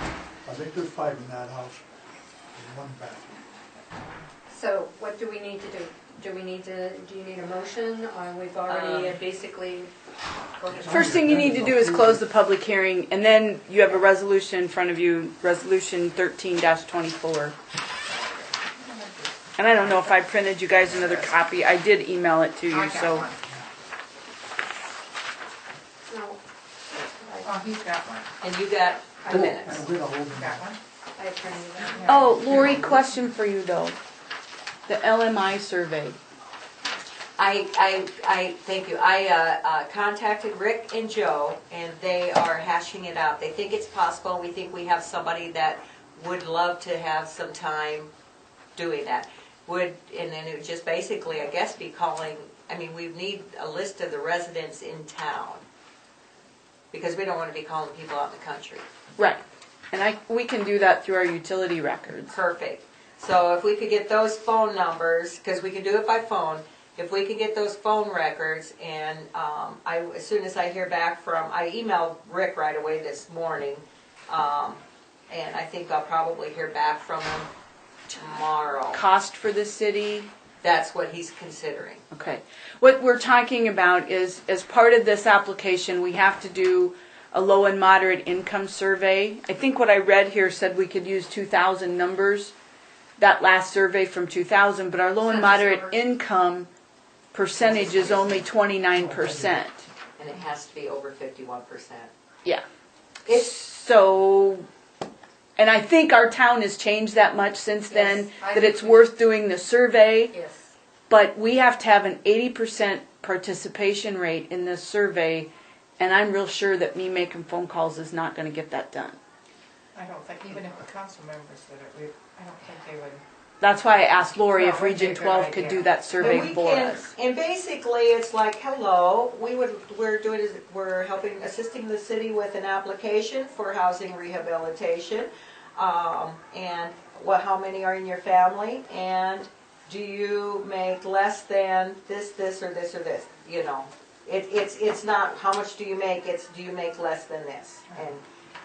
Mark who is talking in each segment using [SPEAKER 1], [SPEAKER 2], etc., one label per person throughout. [SPEAKER 1] I think there's five in that house, and one bathroom.
[SPEAKER 2] So what do we need to do? Do we need to, do you need a motion, or we've already
[SPEAKER 3] Um,
[SPEAKER 2] uh, basically? go ahead.
[SPEAKER 1] Fir-
[SPEAKER 3] First thing you need to do is close the public hearing, and then you have a resolution in front of you, Resolution thirteen twenty-four. And I don't know if I printed you guys another copy, I did email it to
[SPEAKER 4] I
[SPEAKER 3] you,
[SPEAKER 4] got
[SPEAKER 3] so.
[SPEAKER 4] one.
[SPEAKER 2] No. I-
[SPEAKER 4] Oh, he's got one.
[SPEAKER 3] And you got
[SPEAKER 2] the minutes.
[SPEAKER 1] And we're gonna hold them.
[SPEAKER 4] Got one?
[SPEAKER 2] I printed that.
[SPEAKER 4] Yeah.
[SPEAKER 3] Oh, Lori, question for you though. The LMI survey.
[SPEAKER 5] I, I, I, thank you. I uh, uh, contacted Rick and Joe, and they are hashing it out. They think it's possible. We think we have somebody that would love to have some time doing that. Would, and then it would just basically, I guess, be calling, I mean, we need a list of the residents in town. Because we don't want to be calling people out in the country.
[SPEAKER 3] Right. And I, we can do that through our utility records.
[SPEAKER 5] Perfect. So if we could get those phone numbers, because we can do it by phone, if we could get those phone records and um, I, as soon as I hear back from, I emailed Rick right away this morning. um, And I think I'll probably hear back from him tomorrow.
[SPEAKER 3] Cost for the city,
[SPEAKER 5] That's what he's considering.
[SPEAKER 3] Okay. What we're talking about is, as part of this application, we have to do a low and moderate income survey. I think what I read here said we could use two thousand numbers, that last survey from two thousand, but our low and
[SPEAKER 4] Census
[SPEAKER 3] moderate
[SPEAKER 4] numbers.
[SPEAKER 3] income percentage is only twenty-nine percent.
[SPEAKER 5] And it has to be over fifty-one percent.
[SPEAKER 3] Yeah.
[SPEAKER 5] It's,
[SPEAKER 3] So, and I think our town has changed that much since then,
[SPEAKER 2] Yes, I
[SPEAKER 3] that it's
[SPEAKER 2] think-
[SPEAKER 3] worth doing the survey.
[SPEAKER 2] Yes.
[SPEAKER 3] But we have to have an eighty percent participation rate in this survey, and I'm real sure that me making phone calls is not gonna get that done.
[SPEAKER 4] I don't think, even if the council members did it, we, I don't think they would.
[SPEAKER 3] That's why I asked Lori if
[SPEAKER 4] Well, that'd be a
[SPEAKER 3] Region
[SPEAKER 4] good
[SPEAKER 3] Twelve could
[SPEAKER 4] idea.
[SPEAKER 3] do that survey
[SPEAKER 5] And we
[SPEAKER 3] for
[SPEAKER 5] can-
[SPEAKER 3] us.
[SPEAKER 5] And basically, it's like, hello, we would, we're doing, we're helping, assisting the city with an application for housing rehabilitation. Um, and what, how many are in your family? And do you make less than this, this, or this, or this? You know, it, it's, it's not how much do you make, it's do you make less than this? And,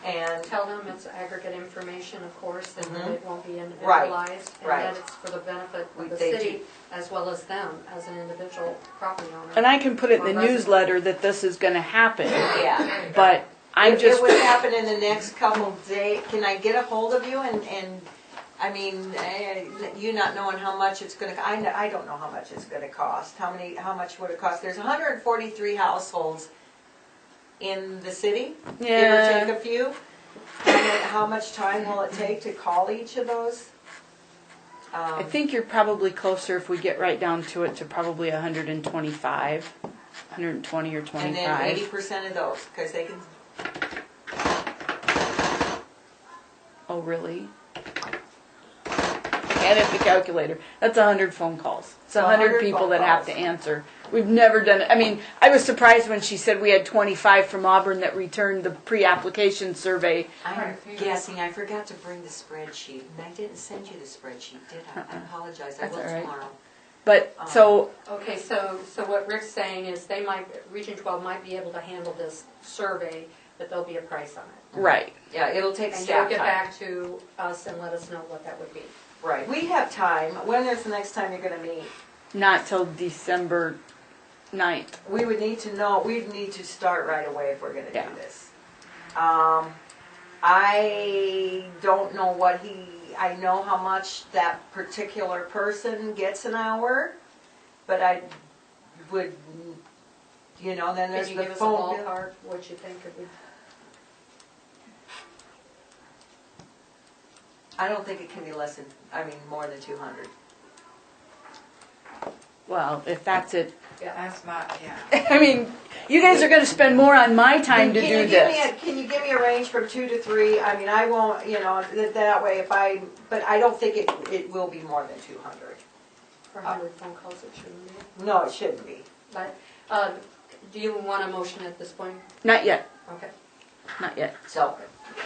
[SPEAKER 5] and
[SPEAKER 2] Tell them it's aggregate information, of course, and that it won't be individualized.
[SPEAKER 5] Mm-hmm. right.
[SPEAKER 2] And that it's for the benefit
[SPEAKER 5] We-
[SPEAKER 2] of the
[SPEAKER 5] they do.
[SPEAKER 2] city as well as them as an individual property owner.
[SPEAKER 3] And I can put it in the
[SPEAKER 2] Well, that's-
[SPEAKER 3] newsletter that this is gonna happen,
[SPEAKER 5] yeah.
[SPEAKER 3] but I'm
[SPEAKER 5] If It
[SPEAKER 3] just,
[SPEAKER 5] would happen in the next couple day, can I get a hold of you and, and, I mean, eh, you not knowing how much it's gonna, I, kn- I don't know how much it's gonna cost, how many, how much would it cost? There's hundred and forty-three households in the city, give or take
[SPEAKER 3] yeah,
[SPEAKER 5] a few. How mu- How much time will it take to call each of those? Um,
[SPEAKER 3] I think you're probably closer if we get right down to it to probably hundred and twenty-five, hundred and twenty or
[SPEAKER 5] And then eighty
[SPEAKER 3] twenty-five.
[SPEAKER 5] percent of those, cause they can,
[SPEAKER 3] Oh, really? And it's the calculator. That's a hundred phone calls. It's a
[SPEAKER 5] A
[SPEAKER 3] hundred
[SPEAKER 5] hundred
[SPEAKER 3] people
[SPEAKER 5] phone
[SPEAKER 3] that have to
[SPEAKER 5] calls.
[SPEAKER 3] answer. We've never done it. I mean, I was surprised when she said we had twenty-five from Auburn that returned the pre-application survey.
[SPEAKER 5] I'm
[SPEAKER 4] Right, if you-
[SPEAKER 5] guessing, I forgot to bring the spreadsheet, and I didn't send you the spreadsheet, did I? I apologize, I
[SPEAKER 3] That's
[SPEAKER 5] will
[SPEAKER 3] all right.
[SPEAKER 5] tomorrow.
[SPEAKER 3] But
[SPEAKER 5] Oh.
[SPEAKER 3] so
[SPEAKER 2] Okay, so, so what Rick's saying is they might, Region 12 might be able to handle this survey, but there'll be a price on it.
[SPEAKER 3] right,
[SPEAKER 5] Yeah, it'll take
[SPEAKER 2] And you'll
[SPEAKER 5] staff
[SPEAKER 2] get
[SPEAKER 5] time.
[SPEAKER 2] back to us and let us know what that would be.
[SPEAKER 5] Right, we have time. When is the next time you're gonna meet?
[SPEAKER 3] not till December 9th.
[SPEAKER 5] We would need to know, we'd need to start right away if we're gonna
[SPEAKER 3] Yeah.
[SPEAKER 5] do this. Um, I don't know what he, I know how much that particular person gets an hour, but I would, you know, then
[SPEAKER 2] Could
[SPEAKER 5] there's
[SPEAKER 2] you
[SPEAKER 5] the
[SPEAKER 2] give us a
[SPEAKER 5] phone bill.
[SPEAKER 2] ballpark, what you think it would
[SPEAKER 5] I don't think it can be less than, I mean, more than two hundred.
[SPEAKER 3] Well, if that's it.
[SPEAKER 4] That's not, yeah.
[SPEAKER 3] I mean, you guys are going to spend more on my time to
[SPEAKER 5] Can you
[SPEAKER 3] do
[SPEAKER 5] give me
[SPEAKER 3] this.
[SPEAKER 5] a- Can you give me a range from two to three? I mean, I won't, you know, th- that way if I, but I don't think it, it will be more than two hundred.
[SPEAKER 2] for
[SPEAKER 5] Uh,
[SPEAKER 2] 100 phone calls it shouldn't be?
[SPEAKER 5] No, it shouldn't be.
[SPEAKER 2] But, uh, do you want a motion at this point?
[SPEAKER 3] Not yet.
[SPEAKER 2] Okay.
[SPEAKER 3] Not yet.
[SPEAKER 5] So,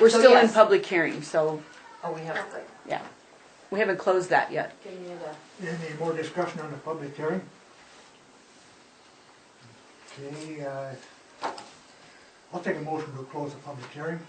[SPEAKER 3] We're
[SPEAKER 5] So
[SPEAKER 3] still in
[SPEAKER 5] yes.
[SPEAKER 3] public hearing, so
[SPEAKER 5] oh, we have, to-
[SPEAKER 3] yeah. We haven't closed that yet.
[SPEAKER 2] Give me the,
[SPEAKER 1] Any more discussion on the public hearing? Okay, uh, I'll take a motion to close the public hearing.